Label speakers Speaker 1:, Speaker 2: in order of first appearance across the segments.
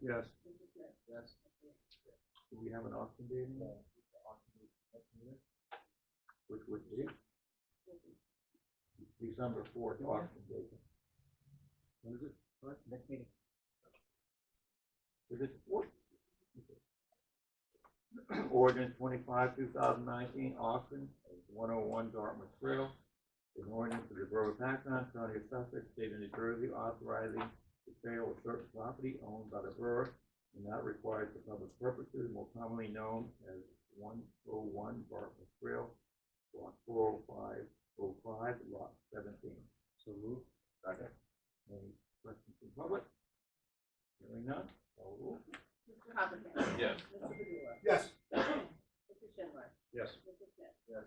Speaker 1: Yes. Yes. Do we have an auction date? in mind? Which would be? December fourth auction date. When is it? What? Next meeting. Is it fourth? Ordinance twenty-five, two thousand nineteen, auction, one oh one Dartmouth Trail. An ordinance of the Borough of Paxton, County of Sussex, State of New Jersey, authorizing the sale of certain property owned by the borough and not required for public purposes, more commonly known as one oh one Bartlett Trail, lot four oh five oh five, lot seventeen. So moved. Second. Any questions from public? Hearing none, call the roll.
Speaker 2: Mr. Hoppercamp.
Speaker 1: Yes.
Speaker 2: Mr. Padula.
Speaker 3: Yes.
Speaker 2: Mr. Schindler.
Speaker 1: Yes.
Speaker 2: Mr. Smith.
Speaker 3: Yes.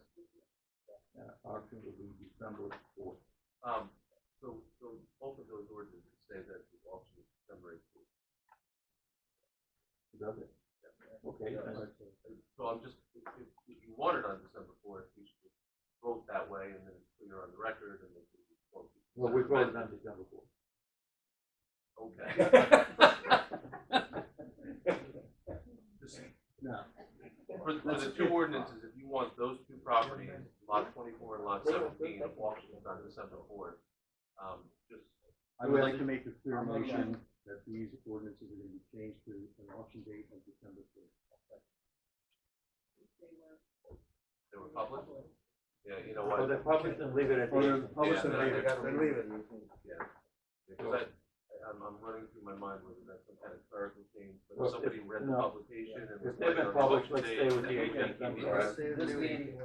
Speaker 1: Uh, auction will be December fourth.
Speaker 4: Um, so, so both of those ordinances say that the auction is December eighteenth.
Speaker 1: Is that it? Okay, then,
Speaker 4: So I'm just, if, if if you want it on December fourth, you should vote that way and then it's clear on the record and then. we can vote.
Speaker 1: well, we voted on December fourth.
Speaker 4: Okay. Just
Speaker 1: No.
Speaker 4: For, for the two ordinances, if you want those two properties, lot twenty-four and lot seventeen, of auction is on December fourth. Um, just,
Speaker 1: I would like to make the clear motion that these ordinances are gonna be changed to an auction date of December fourth.
Speaker 2: They were-
Speaker 4: they were public, yeah, you know
Speaker 1: Well,
Speaker 4: what?
Speaker 1: they're published and leave it at
Speaker 3: Oh, they're published
Speaker 4: Yeah,
Speaker 3: and
Speaker 4: then-
Speaker 3: leave it.
Speaker 4: then
Speaker 3: leave it.
Speaker 4: Because I, I- I'm, I'm running through my mind whether that's some kind of clerical change, but
Speaker 1: Well,
Speaker 4: if somebody
Speaker 1: if-
Speaker 4: read the
Speaker 1: no.
Speaker 4: publication and. "Oh,
Speaker 1: If they've been published, let's stay with the eighteenth, I'm sorry.
Speaker 3: This meeting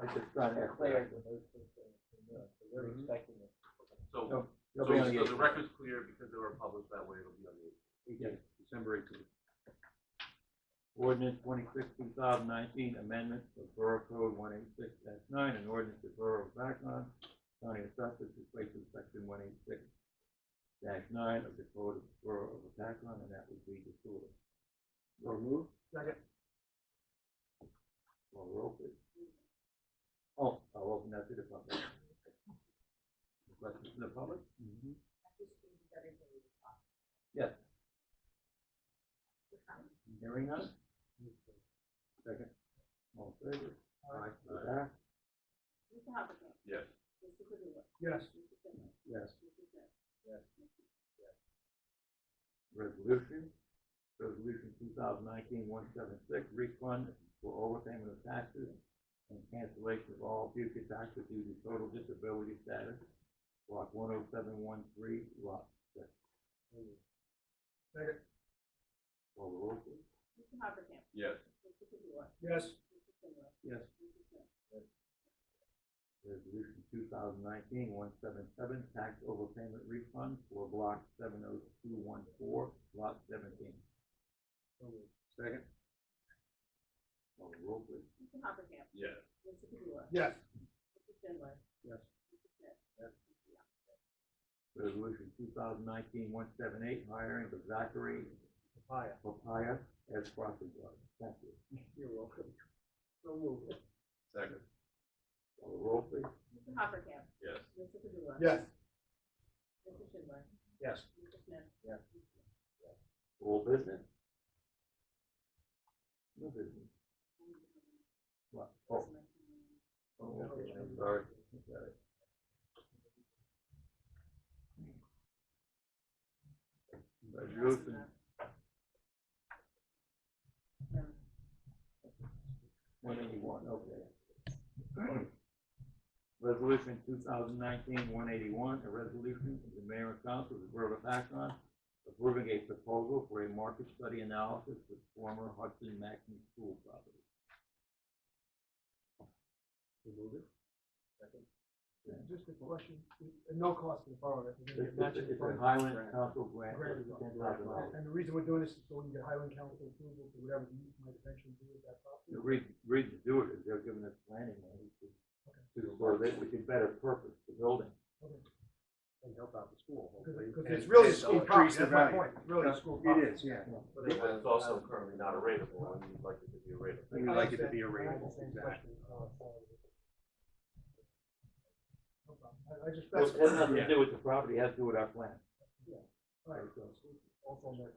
Speaker 1: I just trying to clear.
Speaker 3: Mm-hmm.
Speaker 4: So,
Speaker 1: No,
Speaker 4: so,
Speaker 1: It'll be on the
Speaker 4: so the
Speaker 1: eighteenth.
Speaker 4: record's clear because they were published that way, it'll be on the eighteenth.
Speaker 1: Yes, December eighteenth. Ordinance twenty-six, two thousand nineteen, amendment of Borough Code one eight six nine, an ordinance of Borough of Backland, County of Sussex, replacing section one eight six nine of the Code of Borough of Backland, and that would be disorder. So move.
Speaker 3: Second.
Speaker 1: Well, roll please. Oh, I'll open that to the public. Questions from the public? Yes. Hearing none? Second. All in favor? Aye. Aye.
Speaker 2: Mr. Hoppercamp.
Speaker 4: Yes.
Speaker 2: Mr. Padula.
Speaker 3: Yes.
Speaker 2: Mr. Schindler.
Speaker 1: Yes.
Speaker 2: Mr. Smith.
Speaker 1: Resolution, resolution 2019-176, refund for overpayment of taxes and cancellation of all future taxes due to total disability status, block one oh seven one three, lot six.
Speaker 3: Second.
Speaker 1: Call the roll, please.
Speaker 2: Mr. Hoppercamp.
Speaker 4: Yes.
Speaker 2: Mr. Padula.
Speaker 3: Yes.
Speaker 2: Mr. Schindler.
Speaker 1: Yes.
Speaker 2: Mr. Smith.
Speaker 1: Resolution 2019-177 tax overpayment refund for block seven oh two one four, lot seventeen. Second. Call the roll, please.
Speaker 2: Mr. Hoppercamp.
Speaker 4: Yes.
Speaker 2: Mr. Padula.
Speaker 3: Yes.
Speaker 2: Mr. Schindler.
Speaker 1: Yes.
Speaker 2: Mr. Smith.
Speaker 1: Resolution 2019-178 hiring of Zachary
Speaker 3: Papaya.
Speaker 1: Papaya as property guard. Thank you.
Speaker 3: You're welcome. So move.
Speaker 4: Second.
Speaker 1: Call the roll, please.
Speaker 2: Mr. Hoppercamp.
Speaker 4: Yes.
Speaker 2: Mr. Padula.
Speaker 3: Yes.
Speaker 2: Mr. Schindler.
Speaker 3: Yes.
Speaker 2: Mr. Smith.
Speaker 1: All business? No business. What? Oh, oh, okay, I'm sorry. Got it. Resolution One eighty-one, okay. Resolution 2019-181, a resolution of the mayor and council of the borough of Akron approving a proposal for a market study analysis with former Hudson Maxim School property.
Speaker 3: Just a question, at no cost to the borough, if you're
Speaker 1: It's,
Speaker 3: gonna get matching
Speaker 1: it's, it's a
Speaker 3: funds.
Speaker 1: Highland Council grant,
Speaker 3: Grant
Speaker 1: ten
Speaker 3: is up.
Speaker 1: thousand dollars.
Speaker 3: And the reason we're doing this is so we can get Highland Council approval for whatever the use might eventually be at that
Speaker 1: The
Speaker 3: property.
Speaker 1: reason, reason to do it is they're giving us planning money to, to, so that we can better purpose the building.
Speaker 5: and help out the school, hopefully.
Speaker 3: Because
Speaker 5: and-
Speaker 3: it's really a
Speaker 5: and
Speaker 3: school property,
Speaker 5: increase
Speaker 3: that's
Speaker 5: the
Speaker 3: my
Speaker 5: value.
Speaker 3: point, it's really a school property.
Speaker 5: It is, yeah.
Speaker 4: But it's also currently not a rateable, and you'd like it to be a rateable.
Speaker 5: We'd like it to be a
Speaker 3: I
Speaker 5: rateable,
Speaker 3: understand. I
Speaker 5: exactly.
Speaker 3: understand the question, uh, for- No problem. I, I just,
Speaker 1: Well,
Speaker 3: that's.
Speaker 1: It has nothing to do with the property, it has to do with our plan.
Speaker 3: Right, also on that